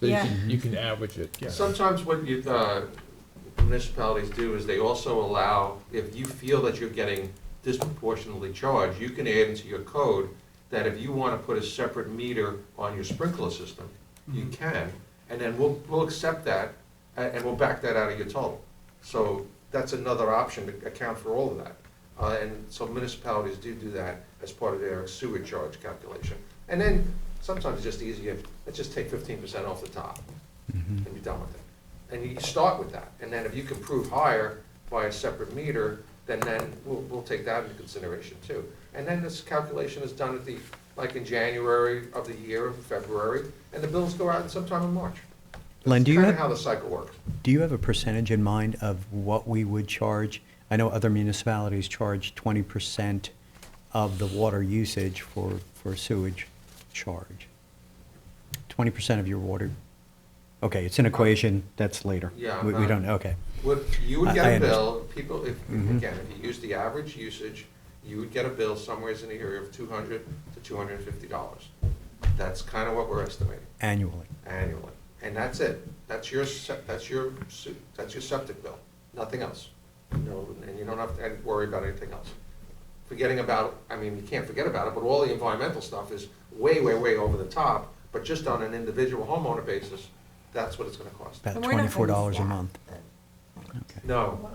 So you Yeah. can, you can average it, yeah. Sometimes what you, uh, municipalities do is they also allow, if you feel that you're getting disproportionately charged, you can add into your code that if you wanna put a separate meter on your sprinkler system, you can, and then we'll, we'll accept that, a- and, we'll back that out of your total. So that's another option to account for all of that. Uh, and so municipalities do do that as part of their sewer charge calculation. And then sometimes it's just easier, let's just take fifteen percent off the top Mm-hmm. and be done with it. And you start with that, and then if you can prove higher by a separate meter, then then we'll, we'll take that into consideration too. And then this calculation is done at the, like in January of the year, February, and the bills go out sometime in March. Len, do you Kind of have- how the cycle works. Do you have a percentage in mind of what we would charge? I know other municipalities charge twenty percent of the water usage for, for sewage charge. Twenty percent of your water, okay, it's an equation, that's later. Uh, Yeah, We, we uh, don't, okay. Would, you would I- get I Mm-hmm. a bill, people, if, again, if you use the average usage, you would get a bill somewheres in the area of two hundred to two hundred and fifty dollars. That's kind of what we're estimating. Annually, annually, and that's it. That's your, se- that's your, se- that's your septic bill, nothing else. No, and you don't have to worry about anything else. Forgetting about, I mean, you can't forget about it, but all the environmental stuff is way, way, way over the top, but just on an individual homeowner basis, that's what it's gonna cost. about And we're not gonna twenty-four dollars a staff month. it. Okay. No,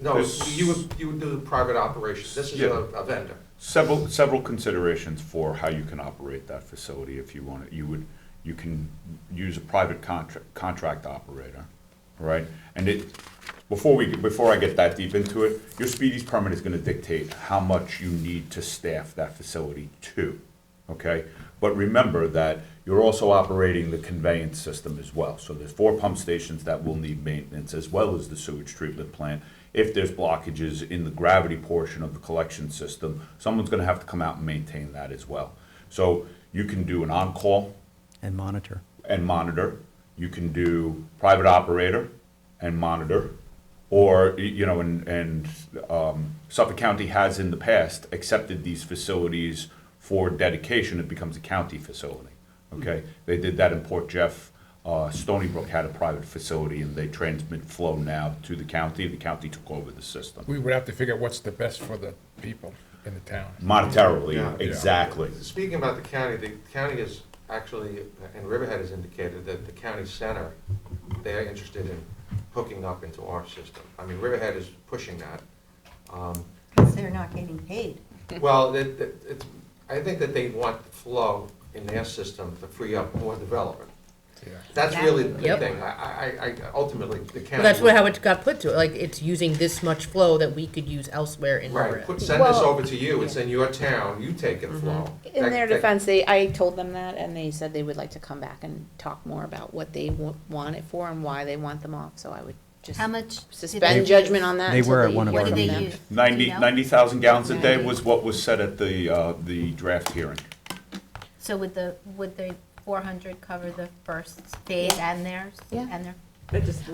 no, you would, you would do the private operation, this is a a vendor. Several, several considerations for how you can operate that facility if you want it. You would, you can use a private contract, contract operator, all right? And it, before we, before I get that deep into it, your speedies permit is gonna dictate how much you need to staff that facility to, okay? But remember that you're also operating the conveyance system as well. So there's four pump stations that will need maintenance as well as the sewage treatment plant. If there's blockages in the gravity portion of the collection system, someone's gonna have to come out and maintain that as well. So you can do an on-call And monitor. and monitor. You can do private operator and monitor, or, y- you know, and, and um, Suffolk County has in the past accepted these facilities for dedication, it becomes a county facility, okay? They did that in Port Jeff, uh, Stony Brook had a private facility, and they transmit flow now to the county, the county took over the system. We would have to figure out what's the best for the people in the town. Yeah. Monetarily, exactly. Speaking about the county, the county is actually, and Riverhead has indicated that the county center, they're interested in hooking up into our system. I mean, Riverhead is pushing that. Um, Because they're not getting paid. Well, it, it- it's, I think that they want the flow in their system to free up more development. Yeah. That's really the Yep. thing. I, I, I, ultimately, the county. Well, that's what, how it got put to it, like, it's using this much flow that we could use elsewhere in Right, Riverhead. put, send this Well- over to you. It's in your town. You take Mm-hmm. it flow. In That- their that- defense, they, I told them that, and they said they would like to come back and talk more about what they wa- want it for and why they want them off, so I would just How much? did suspend they- judgment on that They until were at they one of hear What our did from they meetings. use? them. Do Ninety, you know? ninety thousand gallons a day Ninety. was what was said at the, uh, the draft hearing. So would the, would the four hundred cover the first phase and theirs? Yeah. And their,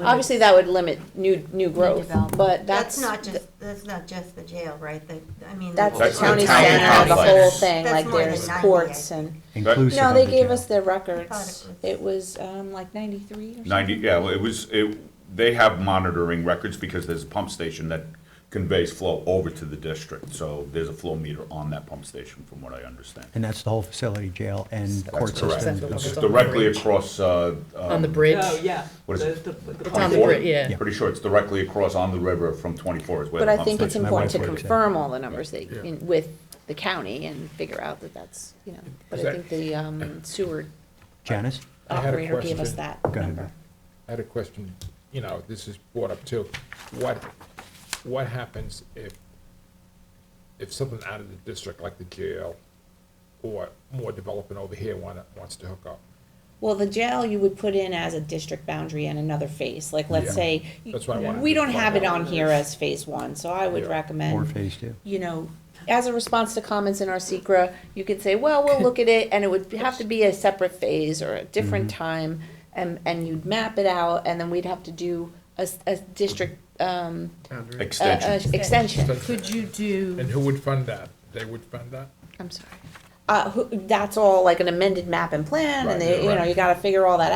Obviously, that would limit new, new growth, development. but that's, That's not th- just, that's not just the jail, right? The, I mean. that's That's the county county center, the complex. whole thing, That's like more than there's 90, I courts think. and. Inclusive No, of they the gave jail. us their thought it records, was- it was, um, like ninety-three or something. Ninety, yeah, well, it was, it, they have monitoring records because there's a pump station that conveys flow over to the district. So there's a flow meter on that pump station, from what I understand. And that's the whole facility, jail and That's court correct. system. It's It's on the directly bridge. across, uh, on the um, bridge. Oh, yeah. What is The- it? the- the It's on the Twenty-four? bridge, yeah. pretty sure it's directly across on the river from twenty-four is where But the I pump think it's station. my important to wife works there. confirm all the numbers they, Yeah. in- with the county and figure out that that's, you know, but Is I that- think the um, sewer Janice? I had a operator gave us question. that Go ahead, number. Beth. I had a question, you know, this is brought up too. What, what happens if, if something out of the district, like the jail, or more development over here wanna, wants to hook up? Well, the jail you would put in as a district boundary and another phase, like, Yeah. let's say, That's what I wanted we to don't find have it out. on here as phase one, so I would Yeah. Or recommend, phase two. you know, as a response to comments in our secra, you could say, well, we'll look at it, and it would have to be a separate phase or a different Mm-hmm. time, and, and you'd map it out, and then we'd have to do a, s- a district, um, a- Extension. a uh, extension. Could you do, And who would fund that? They would fund that? I'm sorry. Uh, who, that's all like an amended map and plan, Right, and they, yeah, you know, right. you gotta figure all that